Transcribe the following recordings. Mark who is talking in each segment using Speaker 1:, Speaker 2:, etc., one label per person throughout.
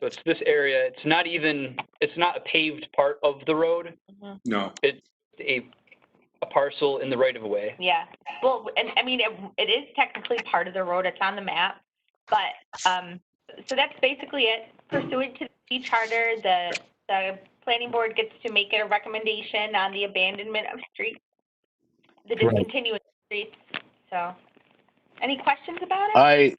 Speaker 1: So it's this area, it's not even, it's not a paved part of the road,
Speaker 2: Mm-hmm.
Speaker 3: No,
Speaker 1: it's a, a parcel in the right of way.
Speaker 2: Yeah, well, and I mean, it, it is technically part of the road, it's on the map, but, um, so that's basically it. Pursuant to the charter, the, the planning board gets to make a recommendation on the abandonment of streets, the
Speaker 4: Right.
Speaker 2: discontinuous streets, so. Any questions about it?
Speaker 4: I,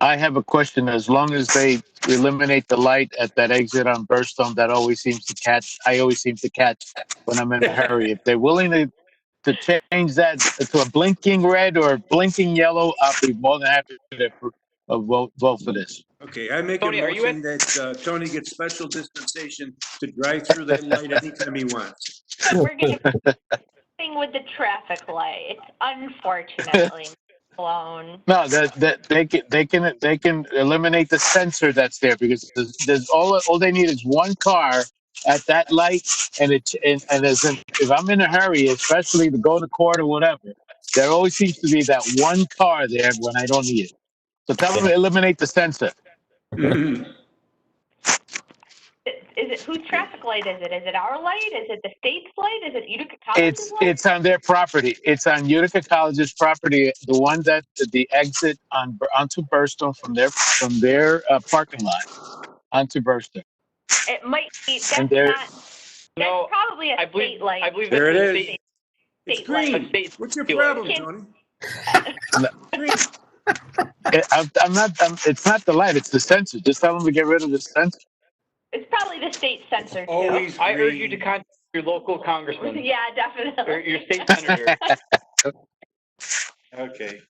Speaker 4: I have a question. As long as they eliminate the light at that exit on Burstone, that always seems to catch, I always seem to catch when I'm in a hurry. If they're willing to, to change that to a blinking red or blinking yellow, I'll be more than happy to appro- uh, vote, vote for this.
Speaker 3: okay, I make a
Speaker 1: Tony, are you
Speaker 3: motion that uh, Tony gets special dispensation to drive through that light anytime he wants.
Speaker 2: We're gonna, thing with the traffic light, it's unfortunately blown.
Speaker 4: No, that, that, they can, they can, they can eliminate the sensor that's there because there's, there's all, all they need is one car at that light and it, and, and as in, if I'm in a hurry, especially to go to court or whatever, there always seems to be that one car there when I don't need it. So tell them to eliminate the sensor.
Speaker 3: Mhm.
Speaker 2: Is it, whose traffic light is it? Is it our light? Is it the state's light? Is it Utica College's
Speaker 4: It's,
Speaker 2: light?
Speaker 4: it's on their property. It's on Utica College's property, the one that, the exit on, onto Burstone from their, from their uh, parking lot onto Burstone.
Speaker 2: It might be, that's
Speaker 4: And
Speaker 2: not,
Speaker 4: there-
Speaker 2: that's
Speaker 1: No,
Speaker 2: probably
Speaker 1: I
Speaker 2: a
Speaker 1: believe-
Speaker 2: state light.
Speaker 1: I believe.
Speaker 3: There
Speaker 1: it's a
Speaker 3: it is.
Speaker 1: state-
Speaker 3: It's
Speaker 2: State light.
Speaker 1: A
Speaker 3: green.
Speaker 1: state,
Speaker 3: What's your problem, Tony? Green.
Speaker 4: It, I'm, I'm not. I'm, it's not the light. It's the sensor. Just tell them to get rid of the sensor.
Speaker 2: It's probably the state censor too.
Speaker 3: Always
Speaker 1: I urge you to
Speaker 3: green.
Speaker 1: contact your local congressman
Speaker 2: Yeah,
Speaker 1: or
Speaker 2: definitely.
Speaker 1: your state senator.
Speaker 3: Okay.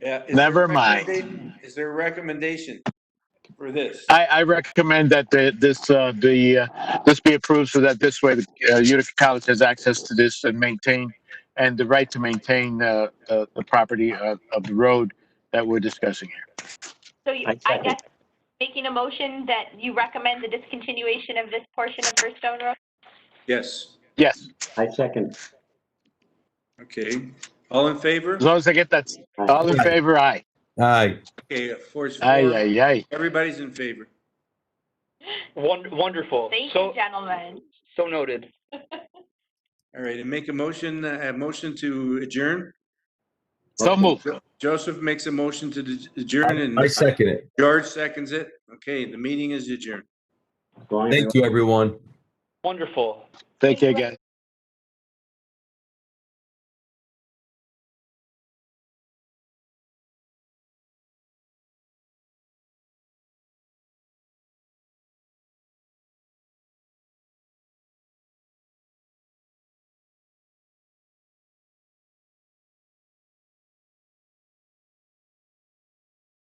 Speaker 3: Yeah, is there
Speaker 4: Never
Speaker 3: a
Speaker 4: mind.
Speaker 3: recommenda- Is there a recommendation for this?
Speaker 4: I, I recommend that the, this uh, the uh, this be approved so that this way uh, Utica College has access to this and maintain and the right to maintain uh, the, the property of, of the road that we're discussing here.
Speaker 2: So you-
Speaker 4: I
Speaker 2: I
Speaker 4: second.
Speaker 2: guess making a motion that you recommend the discontinuation of this portion of First Stone Road?
Speaker 3: Yes,
Speaker 4: Yes,
Speaker 5: I second.
Speaker 3: okay. All in favor?
Speaker 4: as long as I get that. All in favor? Aye.
Speaker 6: Aye.
Speaker 3: Okay, of course,
Speaker 4: Aye.
Speaker 3: four.
Speaker 4: Aye. Aye.
Speaker 3: everybody's in favor.
Speaker 1: Won- Wonderful.
Speaker 2: Thank you,
Speaker 1: So,
Speaker 2: gentlemen.
Speaker 1: so noted.
Speaker 3: All right, and make a motion, a motion to adjourn.
Speaker 4: So move.
Speaker 3: Joseph makes a motion to adjourn and
Speaker 6: I second it.
Speaker 3: George seconds it. Okay, the meeting is adjourned.
Speaker 5: Going-
Speaker 6: Thank you, everyone.
Speaker 1: Wonderful.
Speaker 4: Thank you, guys.